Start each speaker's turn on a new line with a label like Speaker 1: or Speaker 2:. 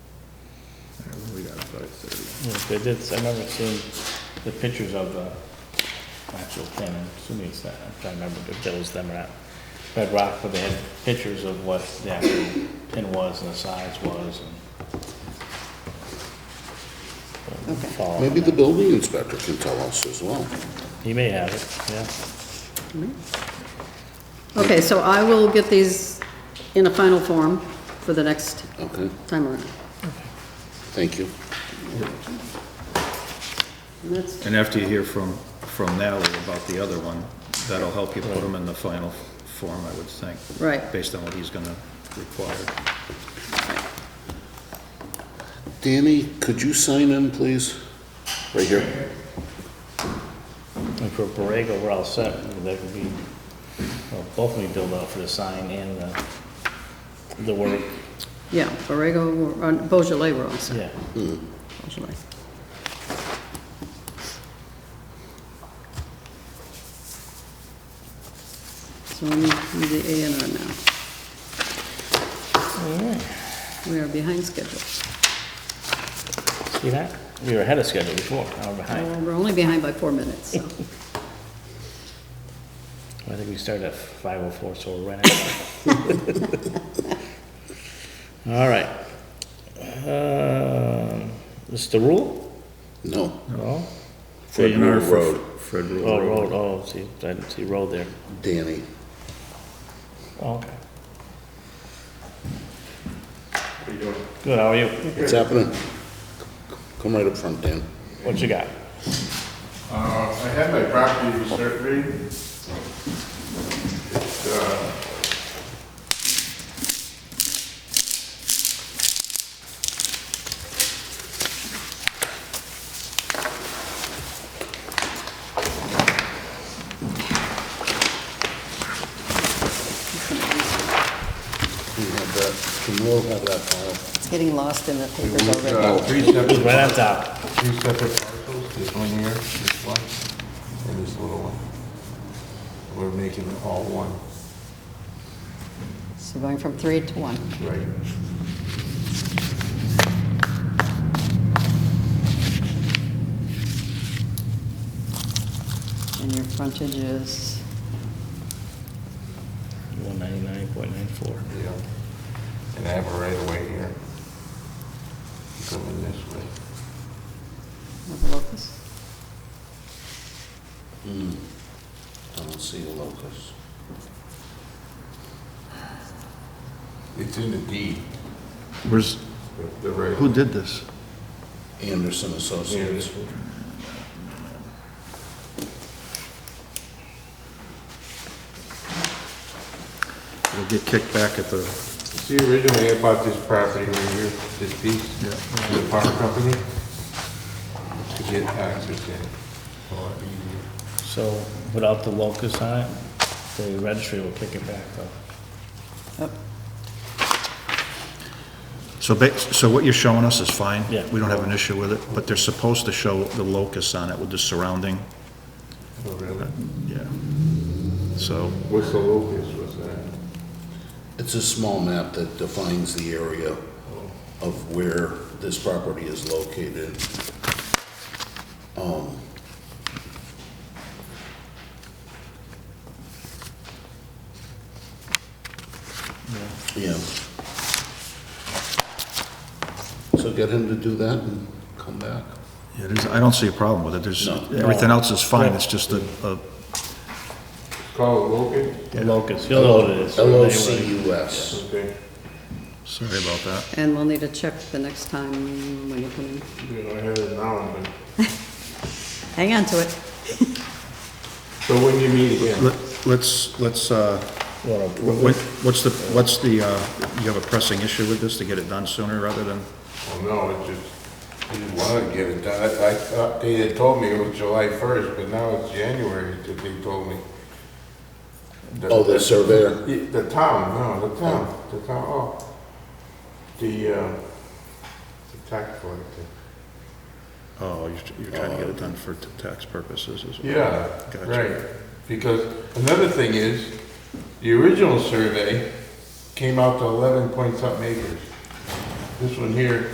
Speaker 1: thirty.
Speaker 2: Yes, they did, I remember seeing the pictures of the actual thing, I'm assuming it's that, I'm trying to remember if it was them or not. Red Rock, but they had pictures of what the actual pin was and the size was and. Follow on
Speaker 1: Maybe the
Speaker 2: that.
Speaker 1: building inspector can tell us as well.
Speaker 2: He may have it, yeah.
Speaker 3: Okay, so I will get these in a final form for the next
Speaker 1: Okay,
Speaker 3: time around.
Speaker 1: thank you.
Speaker 3: And that's,
Speaker 4: And after you hear from, from Natalie about the other one, that'll help you put them in the final form, I would think.
Speaker 3: Right.
Speaker 4: Based on what he's gonna require.
Speaker 1: Danny, could you sign in, please? Right here.
Speaker 2: And for Borrego, we're all set, that could be, well, both of me billed out for the sign and the, the work,
Speaker 3: yeah, Borrego, we're on- Beaujolais, we're on, so,
Speaker 2: yeah.
Speaker 3: Beaujolais. So we need we need the A and R now. We are behind schedule.
Speaker 2: See that? We were ahead of schedule before, now we're behind.
Speaker 3: Well, We're only behind by four minutes, so.
Speaker 2: I think we started at five oh four, so we're right at. All right. Um, Is the rule?
Speaker 1: No.
Speaker 2: No?
Speaker 1: Fred Moore Road.
Speaker 4: Fred
Speaker 2: Oh,
Speaker 4: Rule Road.
Speaker 2: road, oh, see, I didn't see road there.
Speaker 1: Danny.
Speaker 2: Oh, okay. How are you doing? Good, how are you?
Speaker 1: What's happening? Come right up front, Dan.
Speaker 2: What you got?
Speaker 5: Uh, I had my property surveyed. It, uh,
Speaker 1: We have that, can Will have that file?
Speaker 3: It's getting lost in the
Speaker 5: It
Speaker 3: papers
Speaker 5: was
Speaker 3: already.
Speaker 5: uh, three separate,
Speaker 2: Right on top.
Speaker 5: three separate parcels, this one here, this one, and this little one. We're making it all one,
Speaker 3: So going from three to one.
Speaker 5: right?
Speaker 3: And your frontage is,
Speaker 2: 199.94.
Speaker 5: Yeah. And I have a right away here. Coming this way.
Speaker 3: what locus?
Speaker 1: I don't see the locus.
Speaker 5: It's in the deed,
Speaker 4: Where's,
Speaker 5: the- the right.
Speaker 4: who did this?
Speaker 1: Anderson
Speaker 5: Yeah,
Speaker 1: Associates.
Speaker 5: this one.
Speaker 4: It'll get kicked back at the,
Speaker 5: See, originally I bought this property right here, this piece,
Speaker 4: Yeah.
Speaker 5: to the power company, to get access in. a lot easier.
Speaker 2: So without the locus on it, the registry will kick it back though.
Speaker 4: so ba, so what you're showing us is fine?
Speaker 2: Yeah.
Speaker 4: We don't have an issue with it, but they're supposed to show the locus on it with the surrounding,
Speaker 5: Oh, really?
Speaker 4: yeah. So,
Speaker 5: What's the locus, what's that?
Speaker 1: It's a small map that defines the area of where this property is located. Um, Yeah. So get him to do that and come back.
Speaker 4: yeah, there's, I don't see a problem with it, there's,
Speaker 1: No.
Speaker 4: everything else is fine, it's just a, a
Speaker 5: Call it locus?
Speaker 2: The locus, you'll know what it is.
Speaker 1: L O
Speaker 2: anyway.
Speaker 1: C U S.
Speaker 5: Okay.
Speaker 4: Sorry about that.
Speaker 3: And we'll need to check the next time when you come in.
Speaker 5: You know, I have it now, but,
Speaker 3: Hang on to it.
Speaker 5: so when you meet again?
Speaker 4: Let- Let's, let's, uh, what- what's the, what's the, uh, you have a pressing issue with this to get it done sooner rather than,
Speaker 5: Well, no, it just, I didn't want to get it done, I, I thought, they had told me it was July first, but now it's January that they told me. That-
Speaker 1: Oh, the surveyor.
Speaker 5: Yeah, The town, no, the town, the town, oh, the, uh, the tax collector.
Speaker 4: oh, you're you're trying to get it done for t- tax purposes as well?
Speaker 5: Yeah,
Speaker 4: Gotcha.
Speaker 5: right, because another thing is, the original survey came out to eleven point something acres. This one here